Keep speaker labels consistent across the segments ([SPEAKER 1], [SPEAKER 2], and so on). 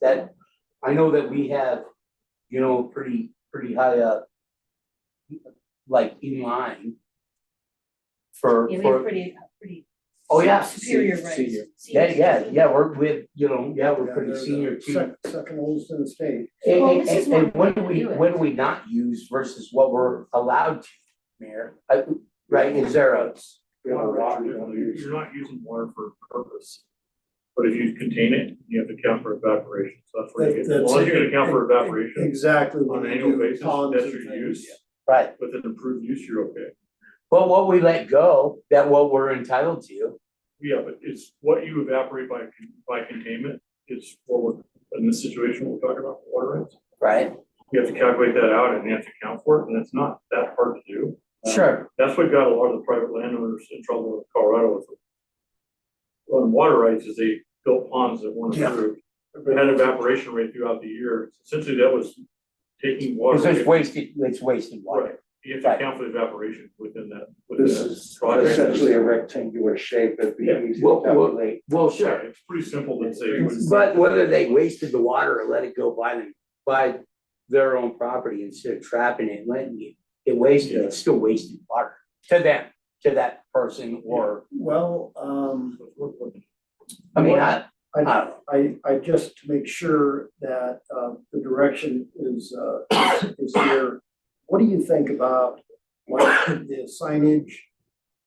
[SPEAKER 1] that, I know that we have, you know, pretty, pretty high up. Like in line. For,
[SPEAKER 2] Yeah, we have
[SPEAKER 1] for,
[SPEAKER 2] pretty, pretty
[SPEAKER 1] oh, yeah,
[SPEAKER 2] superior rates.
[SPEAKER 1] yeah, yeah,
[SPEAKER 2] Senior.
[SPEAKER 1] yeah, we're with, you know, yeah, we're
[SPEAKER 3] Yeah,
[SPEAKER 1] pretty
[SPEAKER 3] they're the
[SPEAKER 1] senior too.
[SPEAKER 3] sec- Second oldest in the state.
[SPEAKER 1] And-
[SPEAKER 2] Well,
[SPEAKER 1] and-
[SPEAKER 2] this is
[SPEAKER 1] and- and
[SPEAKER 2] why we
[SPEAKER 1] what do
[SPEAKER 2] need to
[SPEAKER 1] we,
[SPEAKER 2] do it.
[SPEAKER 1] what do we not use versus what we're allowed to, Mayor? Uh, Right, in zeros.
[SPEAKER 4] You're not using water for a purpose. But if you contain it, you have to count for evaporation, so that's where you get,
[SPEAKER 3] That's-
[SPEAKER 4] well, you're gonna count for evaporation
[SPEAKER 3] Exactly.
[SPEAKER 4] on
[SPEAKER 3] what
[SPEAKER 4] an
[SPEAKER 3] we
[SPEAKER 4] annual
[SPEAKER 3] do,
[SPEAKER 4] basis,
[SPEAKER 3] ponds and
[SPEAKER 4] that's your
[SPEAKER 3] things.
[SPEAKER 4] use.
[SPEAKER 1] Right,
[SPEAKER 4] With an improved use, you're okay.
[SPEAKER 1] but what we let go, that what we're entitled to,
[SPEAKER 4] Yeah, but it's what you evaporate by, con- by containment is what, we're- in this situation, we're talking about water rights.
[SPEAKER 1] right?
[SPEAKER 4] You have to calculate that out and you have to count for it, and it's not that hard to do. Um,
[SPEAKER 1] Sure,
[SPEAKER 4] That's what got a lot of the private landowners in trouble with Colorado with. On water rights is they built ponds that weren't
[SPEAKER 3] Yeah.
[SPEAKER 4] approved. They had evaporation rate throughout the year. Essentially, that was taking water.
[SPEAKER 1] because it's wasted, it's wasted water.
[SPEAKER 4] Right. You have to account for the evaporation within that, within
[SPEAKER 5] This
[SPEAKER 4] that
[SPEAKER 5] is
[SPEAKER 4] project.
[SPEAKER 5] essentially a rectangular shape, it'd be
[SPEAKER 4] Yeah.
[SPEAKER 5] easy
[SPEAKER 1] Well,
[SPEAKER 5] to
[SPEAKER 1] well-
[SPEAKER 5] calculate.
[SPEAKER 1] Well,
[SPEAKER 4] Yeah, It's pretty simple to say. when-
[SPEAKER 1] But whether they wasted the water or let it go by them, by their own property instead of trapping it, and letting it, it wasted, it's still wasted water to them, to that person or,
[SPEAKER 3] Well, um,
[SPEAKER 1] I mean, I, I
[SPEAKER 3] I,
[SPEAKER 5] Uh,
[SPEAKER 1] don't know.
[SPEAKER 3] I, I just to make sure that, uh, the direction is, uh, is here. What do you think about, like, the signage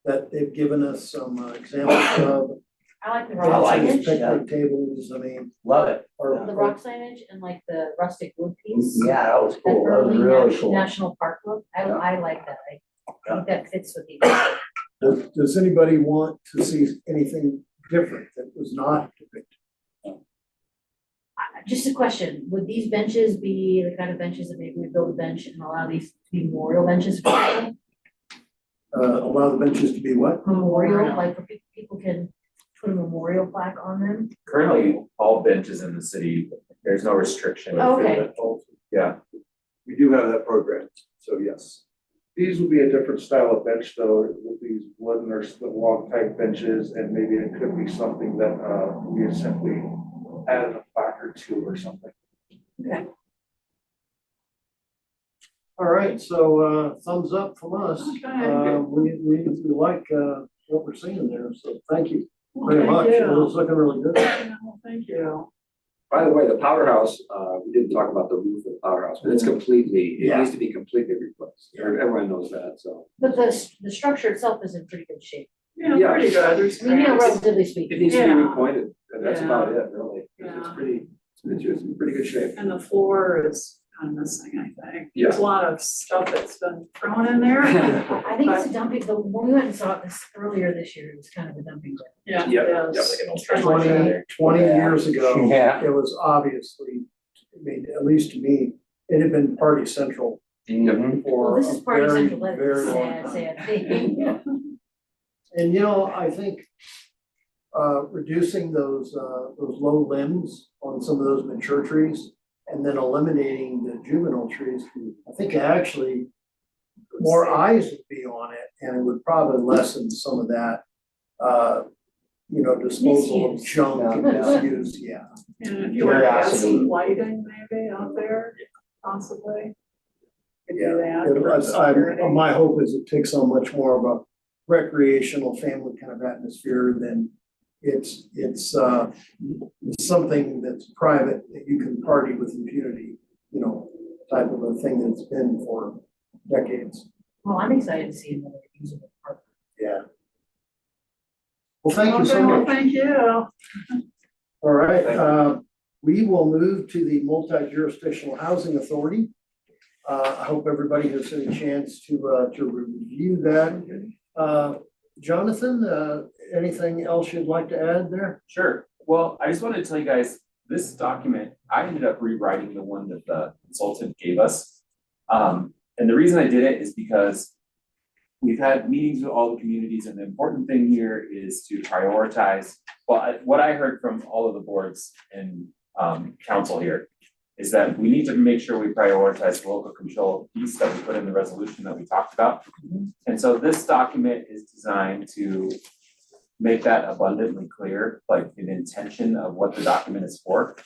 [SPEAKER 3] that they've given us some uh, examples of?
[SPEAKER 2] I like the
[SPEAKER 1] I
[SPEAKER 2] rock
[SPEAKER 1] like
[SPEAKER 2] signage,
[SPEAKER 1] it. yeah.
[SPEAKER 3] Picnic tables, I mean,
[SPEAKER 1] Love it.
[SPEAKER 3] or.
[SPEAKER 2] the rock signage and like the rustic wood piece.
[SPEAKER 1] Yeah, that was
[SPEAKER 2] That
[SPEAKER 1] Mm-hmm. cool. That was
[SPEAKER 2] early
[SPEAKER 1] really
[SPEAKER 2] nat-
[SPEAKER 1] cool.
[SPEAKER 2] national park look, I,
[SPEAKER 1] Yeah.
[SPEAKER 2] I like that, I
[SPEAKER 1] Yeah.
[SPEAKER 2] think that fits with the.
[SPEAKER 3] Does, does anybody want to see anything different that was not depicted?
[SPEAKER 2] I- Just a question, would these benches be the kind of benches that maybe we build a bench and allow these to be memorial benches for people?
[SPEAKER 3] Uh, allow the benches to be what?
[SPEAKER 2] Memorial, like where pe- people can put a memorial plaque on them?
[SPEAKER 6] currently all benches in the city, there's no restriction.
[SPEAKER 2] Okay.
[SPEAKER 6] Yeah,
[SPEAKER 5] We do have that program, so yes. These will be a different style of bench though, with these wooden or split log type benches, and maybe it could be something that, uh, we had simply added a plaque or two or something.
[SPEAKER 3] All right, so, uh, thumbs up from us. Uh, we, we, we like, uh, what we're seeing there, so thank you very much. It was looking really good.
[SPEAKER 7] By the way, the powerhouse, uh, we didn't talk about the roof of the powerhouse, but it's completely, it needs to be completely replaced. Everyone knows that, so.
[SPEAKER 2] But the, s- the structure itself is in pretty good shape,
[SPEAKER 7] Yeah.
[SPEAKER 8] pretty good, there's
[SPEAKER 2] I mean, you know,
[SPEAKER 8] cracks.
[SPEAKER 2] relatively
[SPEAKER 7] It
[SPEAKER 2] speaking,
[SPEAKER 7] needs to be
[SPEAKER 8] Yeah.
[SPEAKER 7] repointed, and that's about it, really. It's- It's
[SPEAKER 8] Yeah.
[SPEAKER 7] pretty, it's it's in pretty good shape.
[SPEAKER 8] And the floor is kind of missing, I think.
[SPEAKER 7] Yeah.
[SPEAKER 8] There's a lot of stuff that's been thrown in there.
[SPEAKER 2] I think it's a dumping, the, when we went and saw this earlier this year, it was kind of a dumping ground.
[SPEAKER 8] Yeah,
[SPEAKER 7] Yeah,
[SPEAKER 8] it
[SPEAKER 6] yeah, like
[SPEAKER 8] is.
[SPEAKER 6] an old
[SPEAKER 8] Trench
[SPEAKER 6] trench.
[SPEAKER 8] line.
[SPEAKER 3] Twenty, twenty years ago.
[SPEAKER 1] Yeah.
[SPEAKER 3] It was obviously, I mean, at least to me, it had been party central
[SPEAKER 2] Well,
[SPEAKER 3] for a
[SPEAKER 2] this is part of
[SPEAKER 3] very,
[SPEAKER 2] Central Leadville,
[SPEAKER 3] very
[SPEAKER 2] it's a
[SPEAKER 3] long
[SPEAKER 2] sad,
[SPEAKER 3] time.
[SPEAKER 2] sad thing.
[SPEAKER 3] And you know, I think uh reducing those uh those low limbs on some of those mature trees and then eliminating the juvenile trees, I think actually more eyes would be on it and it would probably lessen some of that uh you know, disposal of
[SPEAKER 2] Misuse.
[SPEAKER 3] junk and
[SPEAKER 2] Yeah.
[SPEAKER 3] misuse, yeah.
[SPEAKER 8] And if you want to
[SPEAKER 1] Yeah,
[SPEAKER 8] add
[SPEAKER 1] absolutely.
[SPEAKER 8] some lighting maybe out there, possibly. Could do that.
[SPEAKER 3] It
[SPEAKER 8] for
[SPEAKER 3] was- I'm-
[SPEAKER 8] security.
[SPEAKER 3] my hope is it takes on much more of a recreational family kind of atmosphere than it's, it's, uh, something that's private that you can party with impunity, you know, type of a thing that's been for decades.
[SPEAKER 2] Well, I'm excited to see another usable park.
[SPEAKER 3] Yeah. Well, thank you so
[SPEAKER 8] Okay, well,
[SPEAKER 3] much.
[SPEAKER 8] Thank you.
[SPEAKER 3] All right,
[SPEAKER 7] Thank you.
[SPEAKER 3] uh, we will move to the multi-jurisdictional housing authority. Uh, I hope everybody has had a chance to, uh, to review that. Uh, Jonathan, uh, anything else you'd like to add there?
[SPEAKER 6] Sure, well, I just wanted to tell you guys, this document, I ended up rewriting the one that the consultant gave us. Um, and the reason I did it is because we've had meetings with all the communities and the important thing here is to prioritize. Well, I- what I heard from all of the boards and, um, council here is that we need to make sure we prioritize the local control piece that we put in the resolution that we talked about. And so this document is designed to make that abundantly clear, like an intention of what the document is for.